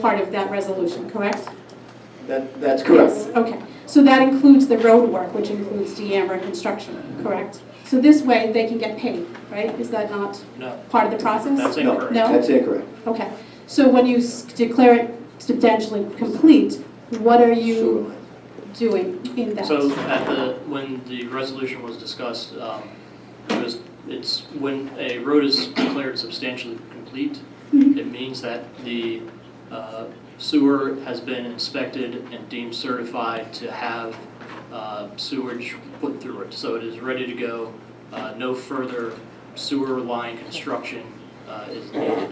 part of that resolution, correct? That, that's correct. Yes, Okay, so that includes the road work, which includes DeAmber construction, correct? So this way, they can get paid, right? Is that not No, part of the process? that's No, incorrect. No? That's incorrect. Okay, so when you s- declare it substantially complete, what are Sewer you line. doing in that? So at the, when the resolution was discussed, um, it was, it's, when a road is declared substantially complete, Mhm. it means that the uh, sewer has been inspected and deemed certified to have uh, sewage put through it. So it is ready to go. Uh, No further sewer line construction uh, is needed.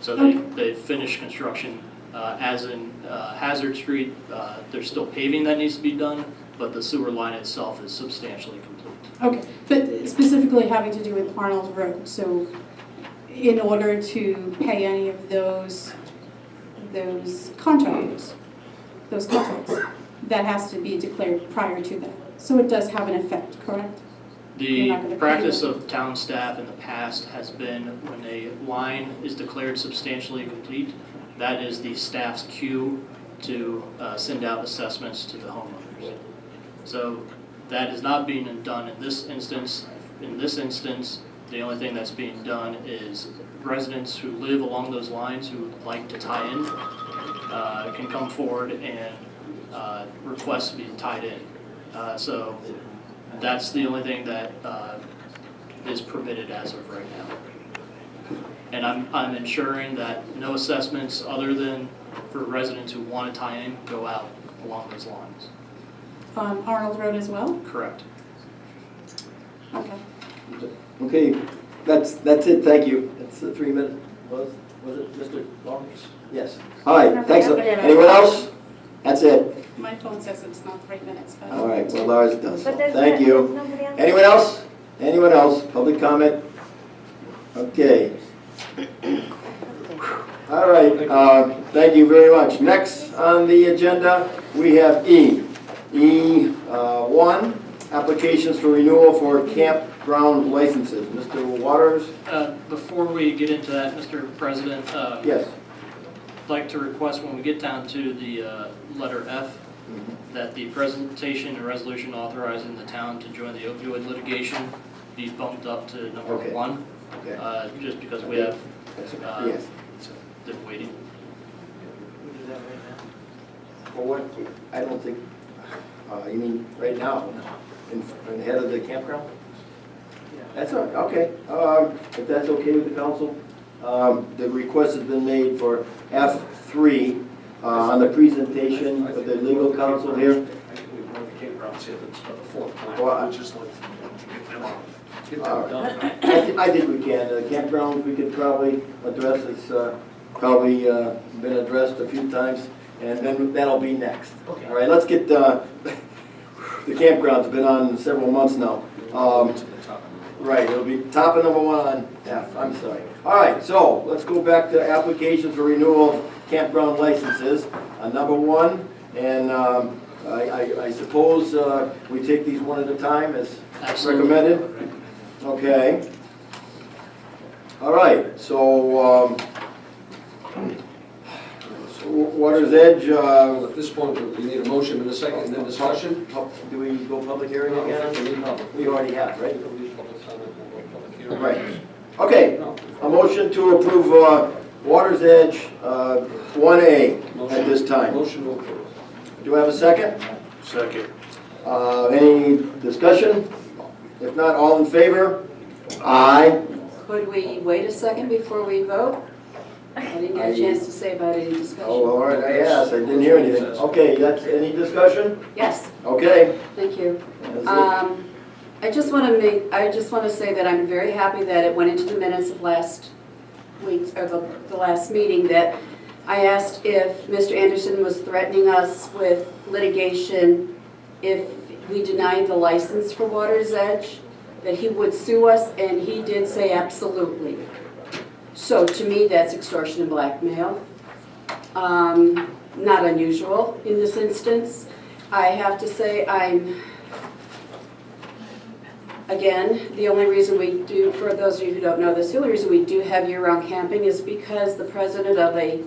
So they, they finished construction, uh, as in uh, Hazard Street, uh, there's still paving that needs to be done, but the sewer line itself is substantially complete. Okay, but specifically having to do with Arnold Road, so in order to pay any of those, those contractors, those contracts, that has to be declared prior to that. So it does have an effect, correct? You're The not gonna pay practice them. of town staff in the past has been when a line is declared substantially complete, that is the staff's cue to uh, send out assessments to the homeowners. So that is not being done in this instance. In this instance, the only thing that's being done is residents who live along those lines who would like to tie in uh, can come forward and uh, request to be tied in. Uh, So that's the only thing that uh, is permitted as of right now. And I'm, I'm ensuring that no assessments other than for residents who want to tie in go out along those lines. On Arnold Road as well? Correct. Okay. Okay, that's, that's it, thank you. That's the three minutes. Was, was it Mr. Lawrence? Yes. All right, thanks. Anyone else? That's it. My phone says it's not three minutes, but. All right, well, Lars does. But there's Thank no- you. there's nobody else? Anyone else? Anyone else? Public comment? Okay. All right, uh, thank you very much. Next on the agenda, we have E. E1, applications for renewal for campground licenses. Mr. Waters? Uh, Before we get into that, Mr. President, uh, Yes. I'd like to request when we get down to the uh, letter F, Mm-hmm. that the presentation and resolution authorizing the town to join the opioid litigation be bumped up to number Okay. one, Okay. uh, just because we have That's- Uh, Yes. been waiting. Well, what, I don't think, uh, you mean right now, in in the head of the campground? That's all right, okay. Um, If that's okay with the council, um, the request has been made for F3 uh, on the presentation of the legal counsel here. I think we've run the campgrounds here, that's about the fourth Well, I- plan, which is like, to get them on. Get All right. them done. I thi- I think we can, the campgrounds, we could probably address, it's uh, probably uh, been addressed a few times, and then that'll be next. Okay. All right, let's get, uh, the campground's been on several months now. Um, To the top. Right, it'll be top of number one on F, I'm sorry. All right, so let's go back to applications for renewal of campground licenses on number one. And um, I- I I suppose uh, we take these one at a time as Absolutely. recommended? Okay. All right, so um, w- Water's Edge, uh, At this point, we need a motion and a second, and then discussion. pub- do we go public hearing No, I think again? we need public- We already have, I right? think we need public comment, we'll go public hearing. Right. Okay, No. A motion to approve uh, Water's Edge uh, 1A at Motion- this time. Motion to approve. Do I have a second? Second. Uh, Any discussion? If not, all in favor? Aye. Could we wait a second before we vote? I didn't get a chance to say about any Oh, discussion. all right, I asked, I didn't hear anything. Okay, that's, any discussion? Yes, Okay. thank you. That's Um, I just want to make, I just want to say that I'm very happy that it went into the minutes of last week's, or the, the last meeting, that I asked if Mr. Anderson was threatening us with litigation if we denied the license for Water's Edge, that he would sue us, and he did say absolutely. So to me, that's extortion and blackmail. Um, Not unusual in this instance. I have to say, I'm Again, the only reason we do, for those of you who don't know this, the only reason we do have year-round camping is because the president of a